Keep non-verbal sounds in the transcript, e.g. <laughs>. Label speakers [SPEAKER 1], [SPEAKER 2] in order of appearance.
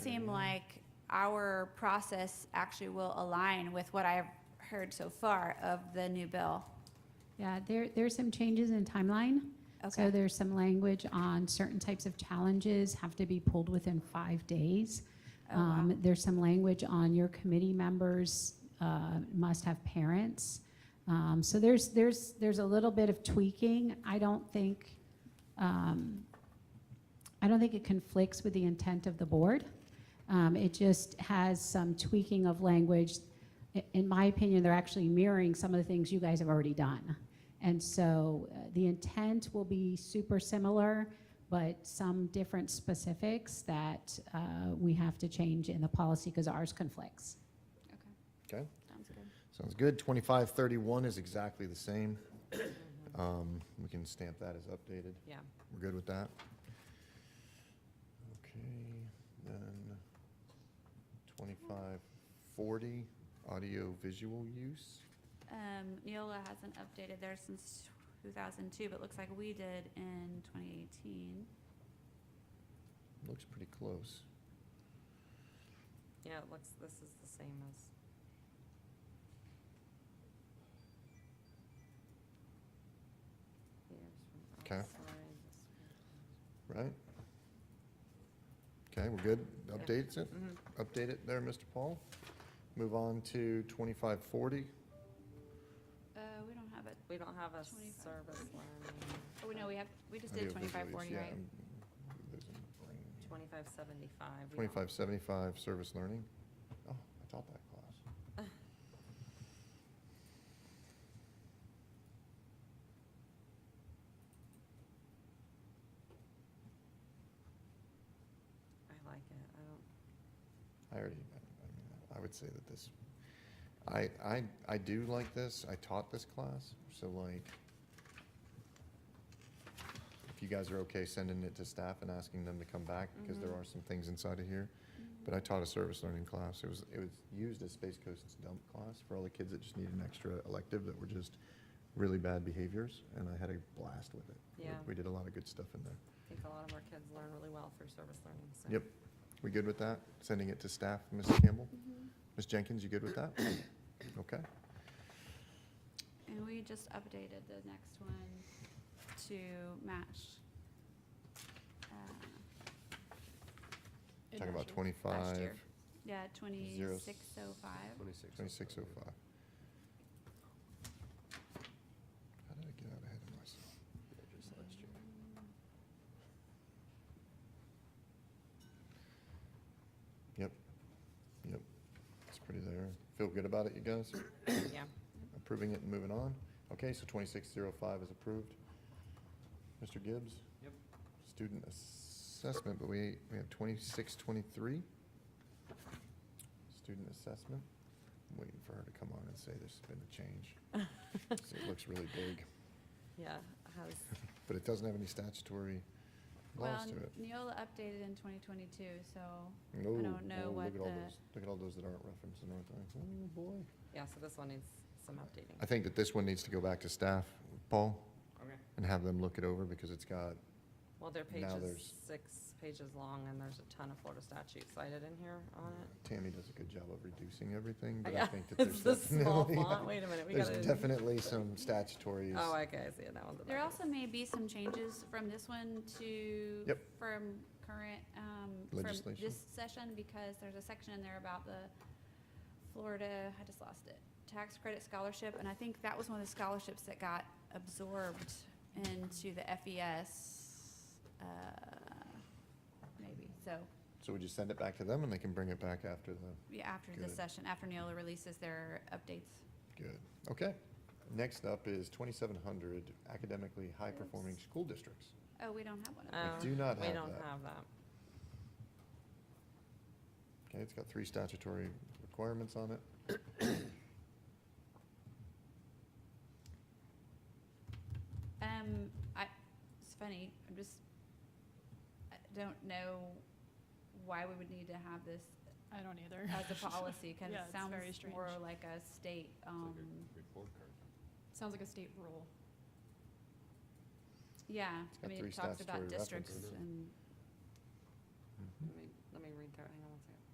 [SPEAKER 1] like our process actually will align with what I've heard so far of the new bill.
[SPEAKER 2] Yeah, there, there's some changes in timeline. So
[SPEAKER 1] Okay,
[SPEAKER 2] there's some language on certain types of challenges have to be pulled within five days.
[SPEAKER 1] Oh, wow.
[SPEAKER 2] Um, There's some language on your committee members uh, must have parents. Um, So there's, there's, there's a little bit of tweaking. I don't think, um, I don't think it conflicts with the intent of the board. Um, It just has some tweaking of language. I- In my opinion, they're actually mirroring some of the things you guys have already done. And so uh, the intent will be super similar, but some different specifics that uh, we have to change in the policy because ours conflicts.
[SPEAKER 3] Okay,
[SPEAKER 1] sounds good.
[SPEAKER 3] sounds good. Twenty-five thirty-one is exactly the same. Um, we can stamp that as updated.
[SPEAKER 4] Mm-hmm, Yeah.
[SPEAKER 3] We're good with that? Okay, then twenty-five forty, audio visual use.
[SPEAKER 1] Um, Neola hasn't updated theirs since two thousand two, but looks like we did in twenty eighteen.
[SPEAKER 3] Looks pretty close.
[SPEAKER 4] Yeah, it looks, this is the same as, here's from
[SPEAKER 3] Okay.
[SPEAKER 4] outside. this
[SPEAKER 3] Right? Okay, we're good. Updates it,
[SPEAKER 4] one- Mhm.
[SPEAKER 3] update it there, Mr. Paul. Move on to twenty-five forty.
[SPEAKER 1] Uh, we don't have it.
[SPEAKER 4] We don't have a
[SPEAKER 1] 25.
[SPEAKER 4] service line,
[SPEAKER 1] Oh, no, we have, we just did twenty-five forty, right?
[SPEAKER 4] twenty-five seventy-five. we don't-
[SPEAKER 3] Twenty-five seventy-five, service learning. Oh, I taught that class.
[SPEAKER 4] I like it, I don't,
[SPEAKER 3] I already, I mean, I would say that this, I, I, I do like this. I taught this class, so like, if you guys are okay sending it to staff and asking them to come back, because there
[SPEAKER 4] Mhm.
[SPEAKER 3] are some things inside of here.
[SPEAKER 1] Mm-hmm.
[SPEAKER 3] But I taught a service learning class. It was, it was used as Space Coast's dump class for all the kids that just needed an extra elective that were just really bad behaviors, and I had a blast with it. We-
[SPEAKER 4] Yeah.
[SPEAKER 3] We did a lot of good stuff in there.
[SPEAKER 4] I think a lot of our kids learn really well through service learning, so.
[SPEAKER 3] Yep. We good with that? Sending it to staff, Ms. Campbell?
[SPEAKER 5] Mm-hmm.
[SPEAKER 3] Ms. Jenkins, you good with
[SPEAKER 5] <coughs>
[SPEAKER 3] that? Okay.
[SPEAKER 1] And we just updated the next one to match. uh,
[SPEAKER 3] Talking about
[SPEAKER 1] Last
[SPEAKER 3] 25,
[SPEAKER 1] year. Yeah, twenty-six oh five.
[SPEAKER 5] Twenty-six.
[SPEAKER 3] 2605. How did I get out ahead of myself?
[SPEAKER 5] Just last year.
[SPEAKER 3] It's pretty there. Feel good about it, you guys?
[SPEAKER 4] <coughs> Yeah,
[SPEAKER 3] Approving it and moving on? Okay, so 2605 is approved. Mr. Gibbs?
[SPEAKER 5] Yep.
[SPEAKER 3] Student assessment, but we, we have 2623. Student assessment. I'm waiting for her to come on and say there's been a change. 'Cause It looks really big,
[SPEAKER 4] yeah, has,
[SPEAKER 3] but it doesn't have any statutory
[SPEAKER 1] Well,
[SPEAKER 3] laws to it.
[SPEAKER 1] Neola updated in twenty twenty-two, so
[SPEAKER 3] No,
[SPEAKER 1] don't know
[SPEAKER 3] no,
[SPEAKER 1] what
[SPEAKER 3] oh, look at all
[SPEAKER 1] the-
[SPEAKER 3] those- Look at all those that aren't referenced and everything. Oh, boy.
[SPEAKER 4] yeah, so this one needs some updating.
[SPEAKER 3] I think that this one needs to go back to staff, Paul,
[SPEAKER 5] Okay.
[SPEAKER 3] and have them look it over because it's got
[SPEAKER 4] Well, their page
[SPEAKER 3] now
[SPEAKER 4] is
[SPEAKER 3] there's-
[SPEAKER 4] six pages long and there's a ton of Florida statutes cited in here on it.
[SPEAKER 3] Tammy does a good job of reducing everything, but I
[SPEAKER 4] Yeah,
[SPEAKER 3] think that
[SPEAKER 4] <laughs> It's
[SPEAKER 3] there's
[SPEAKER 4] the small
[SPEAKER 3] definitely, <laughs>
[SPEAKER 4] font, wait a minute, we
[SPEAKER 3] there's
[SPEAKER 4] gotta,
[SPEAKER 3] definitely some statutory.
[SPEAKER 4] oh, okay, I see it, that one's a
[SPEAKER 1] there
[SPEAKER 4] bugger.
[SPEAKER 1] also may be some changes from this one to.
[SPEAKER 3] Yep.
[SPEAKER 1] From current, um, from
[SPEAKER 3] Legislation.
[SPEAKER 1] this session, because there's a section in there about the Florida, I just lost it, tax credit scholarship, and I think that was one of the scholarships that got absorbed into the FES, uh, maybe, so.
[SPEAKER 3] So we just send it back to them and they can bring it back after the,
[SPEAKER 1] Yeah, after this
[SPEAKER 3] Good.
[SPEAKER 1] session, after Neola releases their updates.
[SPEAKER 3] good, okay. Next up is twenty-seven hundred academically high-performing
[SPEAKER 1] Oops.
[SPEAKER 3] school districts.
[SPEAKER 1] Oh, we don't have one of
[SPEAKER 4] Oh,
[SPEAKER 3] do not
[SPEAKER 4] We
[SPEAKER 3] have
[SPEAKER 4] don't
[SPEAKER 3] that.
[SPEAKER 4] have that,
[SPEAKER 3] Okay, it's got three statutory requirements on it.
[SPEAKER 1] Um, I, it's funny, I'm just, I don't know why we would need to have this
[SPEAKER 6] I don't either.
[SPEAKER 1] as
[SPEAKER 6] <laughs>
[SPEAKER 1] a policy, cause
[SPEAKER 6] Yeah,
[SPEAKER 1] it
[SPEAKER 6] it's
[SPEAKER 1] sounds
[SPEAKER 6] very strange.
[SPEAKER 1] more like a state, um,
[SPEAKER 5] Report card.
[SPEAKER 6] Sounds like a state rule.
[SPEAKER 1] yeah,
[SPEAKER 3] got
[SPEAKER 1] I mean,
[SPEAKER 3] three
[SPEAKER 1] it talks about
[SPEAKER 3] statutory references
[SPEAKER 1] districts
[SPEAKER 3] in it.
[SPEAKER 1] and,
[SPEAKER 3] Mm-hmm.
[SPEAKER 4] let me, let me read through it, hang on.